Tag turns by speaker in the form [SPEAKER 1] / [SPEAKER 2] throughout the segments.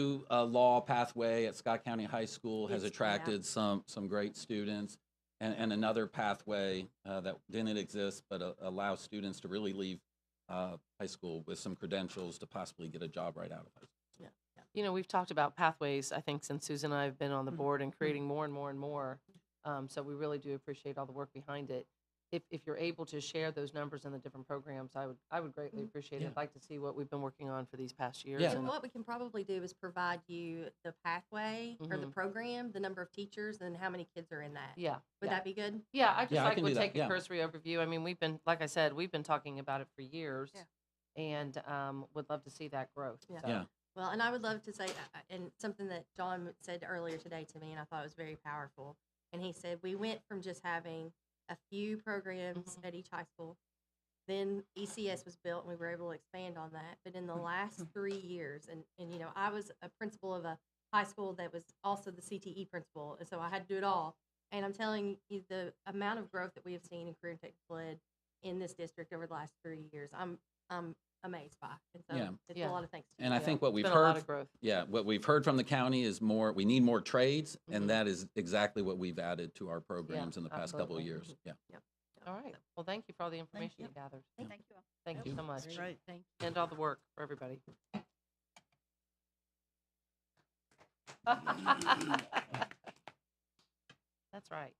[SPEAKER 1] new, uh, law pathway at Scott County High School has
[SPEAKER 2] Yes, yeah.
[SPEAKER 1] attracted some, some great students. And, and another pathway, uh, that didn't exist, but uh, allows students to really leave, uh, high school with some credentials to possibly get a job right out of high school.
[SPEAKER 3] you know, we've talked about pathways, I think, since Susan and I have been on the
[SPEAKER 1] Mm-hmm.
[SPEAKER 2] Mhm.
[SPEAKER 3] board and creating more and more and more. Um, so we really do appreciate all the work behind it. If, if you're able to share those numbers in the different programs, I would, I would greatly
[SPEAKER 2] Mhm.
[SPEAKER 3] appreciate
[SPEAKER 1] Mm-hmm. Yeah.
[SPEAKER 3] it. I'd like to see what we've been working on for these past years.
[SPEAKER 1] Yeah.
[SPEAKER 2] So
[SPEAKER 3] and-
[SPEAKER 2] what we can probably do is provide you the pathway or the program, the number of teachers, and how many kids are in that.
[SPEAKER 3] Mm-hmm. Yeah.
[SPEAKER 2] Would
[SPEAKER 3] yeah.
[SPEAKER 2] that be good?
[SPEAKER 3] Yeah, I just
[SPEAKER 1] Yeah, I
[SPEAKER 3] like
[SPEAKER 1] can
[SPEAKER 3] would
[SPEAKER 1] do that,
[SPEAKER 3] take
[SPEAKER 1] yeah.
[SPEAKER 3] a cursory overview. I mean, we've been, like I said, we've been talking about it for years.
[SPEAKER 2] Yeah.
[SPEAKER 3] And um, would love to see that growth.
[SPEAKER 2] Yeah.
[SPEAKER 3] so.
[SPEAKER 1] Yeah.
[SPEAKER 2] Well, and I would love to say, uh, uh, and something that John said earlier today to me, and I thought it was very powerful. And he said, We went from just having a few programs
[SPEAKER 1] Mm-hmm.
[SPEAKER 2] at each high school, then ECS was built, and we were able to expand on that. But in the
[SPEAKER 1] Mm-hmm.
[SPEAKER 2] last three years, and, and you know, I was a principal of a high school that was also the CTE principal, and so I had to do it all. And I'm telling you, the amount of growth that we have seen in career and technical ed in this district over the last three years, I'm, I'm amazed by. And so
[SPEAKER 1] Yeah.
[SPEAKER 2] it's a
[SPEAKER 3] Yeah.
[SPEAKER 2] lot of thanks. to
[SPEAKER 1] And I
[SPEAKER 3] Yeah.
[SPEAKER 1] think what
[SPEAKER 3] It's
[SPEAKER 1] we've
[SPEAKER 3] been a lot
[SPEAKER 1] heard,
[SPEAKER 3] of growth.
[SPEAKER 1] yeah, what we've heard from the county is more, we need more trades.
[SPEAKER 3] Mhm.
[SPEAKER 1] And that is exactly what we've added to our programs in the past couple of
[SPEAKER 3] absolutely.
[SPEAKER 1] years. Yeah.
[SPEAKER 3] All right. Well, thank you for all the information you
[SPEAKER 4] you.
[SPEAKER 3] gathered.
[SPEAKER 4] Thank you all.
[SPEAKER 3] Thank you
[SPEAKER 1] you.
[SPEAKER 3] so much.
[SPEAKER 4] That's right. Thank
[SPEAKER 3] and all the work for everybody. That's right.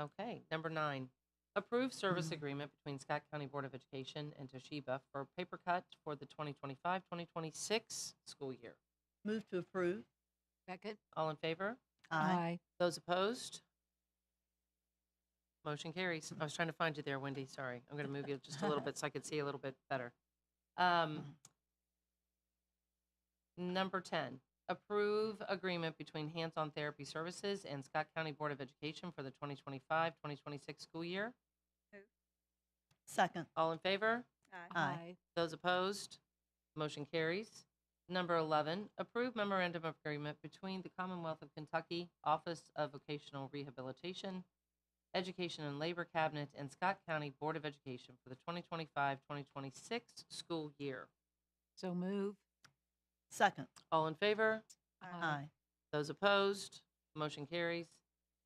[SPEAKER 3] Okay, number nine, approve service agreement between Scott County Board of Education and Toshiba for paper cut for the 2025-2026 school year.
[SPEAKER 4] Move to approve.
[SPEAKER 5] Second.
[SPEAKER 3] All in favor? Those opposed? Motion carries. I was trying to find you there, Wendy, sorry. I'm going to move you just a little bit so I could see a little bit better. Um, Number 10, approve agreement between Hands On Therapy Services and Scott County Board of Education for the 2025-2026 school year.
[SPEAKER 4] Second.
[SPEAKER 3] All in favor?
[SPEAKER 4] Aye.
[SPEAKER 3] Those opposed? Motion carries. Number 11, approve memorandum of agreement between the Commonwealth of Kentucky Office of Vocational Rehabilitation, Education and Labor Cabinet, and Scott County Board of Education for the 2025-2026 school year.
[SPEAKER 5] So move.
[SPEAKER 4] Second.
[SPEAKER 3] All in favor?
[SPEAKER 4] Aye.
[SPEAKER 3] Those opposed? Motion carries.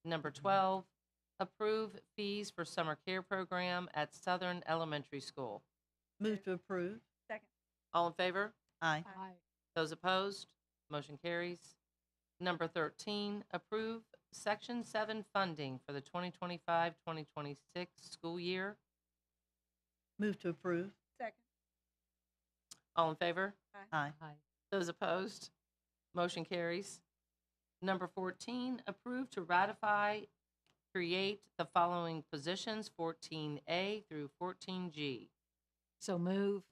[SPEAKER 3] Number 12, approve fees for summer care program at Southern Elementary School.
[SPEAKER 4] Move to approve.
[SPEAKER 3] All in favor?
[SPEAKER 4] Aye.
[SPEAKER 5] Aye.
[SPEAKER 3] Those opposed, motion carries. Number 13, approve Section 7 funding for the 2025-2026 school year.
[SPEAKER 4] Move to approve.
[SPEAKER 3] All in favor?
[SPEAKER 4] Aye.
[SPEAKER 3] Those opposed, motion carries. Number 14, approve to ratify, create the following positions, 14A through 14G.
[SPEAKER 5] So move.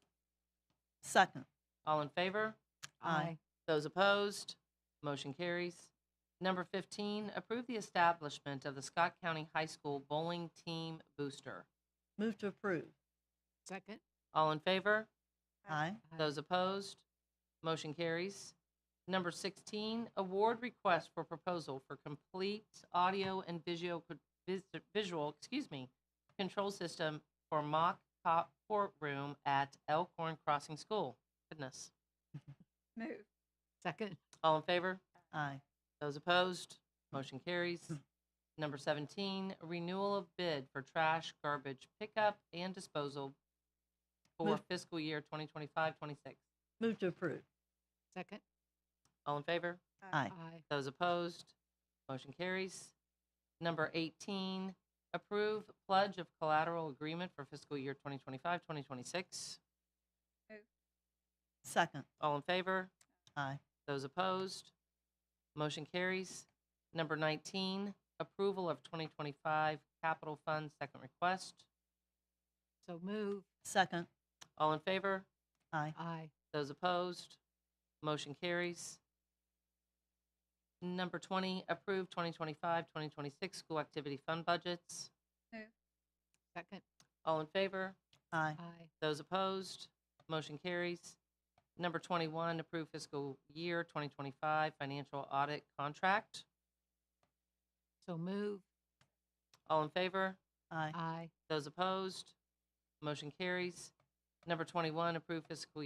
[SPEAKER 4] Second.
[SPEAKER 3] All in favor?
[SPEAKER 4] Aye.
[SPEAKER 3] Those opposed, motion carries. Number 15, approve the establishment of the Scott County High School Bowling Team Booster.
[SPEAKER 4] Move to approve.
[SPEAKER 5] Second.
[SPEAKER 3] All in favor?
[SPEAKER 4] Aye.
[SPEAKER 3] Those opposed, motion carries. Number 16, award request for proposal for complete audio and visual, vis- visual, excuse me, control system for mock cop courtroom at Elkhorn Crossing School. Goodness.
[SPEAKER 5] Move. Second.
[SPEAKER 3] All in favor?
[SPEAKER 4] Aye.
[SPEAKER 3] Those opposed, motion carries. Number 17, renewal of bid for trash garbage pickup and disposal for
[SPEAKER 4] Move-
[SPEAKER 3] fiscal year 2025-26.
[SPEAKER 4] Move to approve.
[SPEAKER 5] Second.
[SPEAKER 3] All in favor?
[SPEAKER 5] Aye.
[SPEAKER 4] Aye.
[SPEAKER 3] Those opposed, motion carries. Number 18, approve pledge of collateral agreement for fiscal year 2025-2026.
[SPEAKER 4] Second.
[SPEAKER 3] All in favor?
[SPEAKER 4] Aye.
[SPEAKER 3] Those opposed? Motion carries. Number 19, approval of 2025 capital fund second request.
[SPEAKER 5] So move.
[SPEAKER 4] Second.
[SPEAKER 3] All in favor?
[SPEAKER 4] Aye.
[SPEAKER 5] Aye.
[SPEAKER 3] Those opposed? Motion carries. Number 20, approve 2025-2026 school activity fund budgets.
[SPEAKER 5] Second.
[SPEAKER 3] All in favor?
[SPEAKER 4] Aye.
[SPEAKER 5] Aye.
[SPEAKER 3] Those opposed? Motion carries. Number 21, approve fiscal year 2025 financial audit contract.
[SPEAKER 5] So move.
[SPEAKER 3] All in favor?
[SPEAKER 4] Aye.
[SPEAKER 5] Aye.
[SPEAKER 3] Those opposed? Motion carries. Number 21, approve fiscal year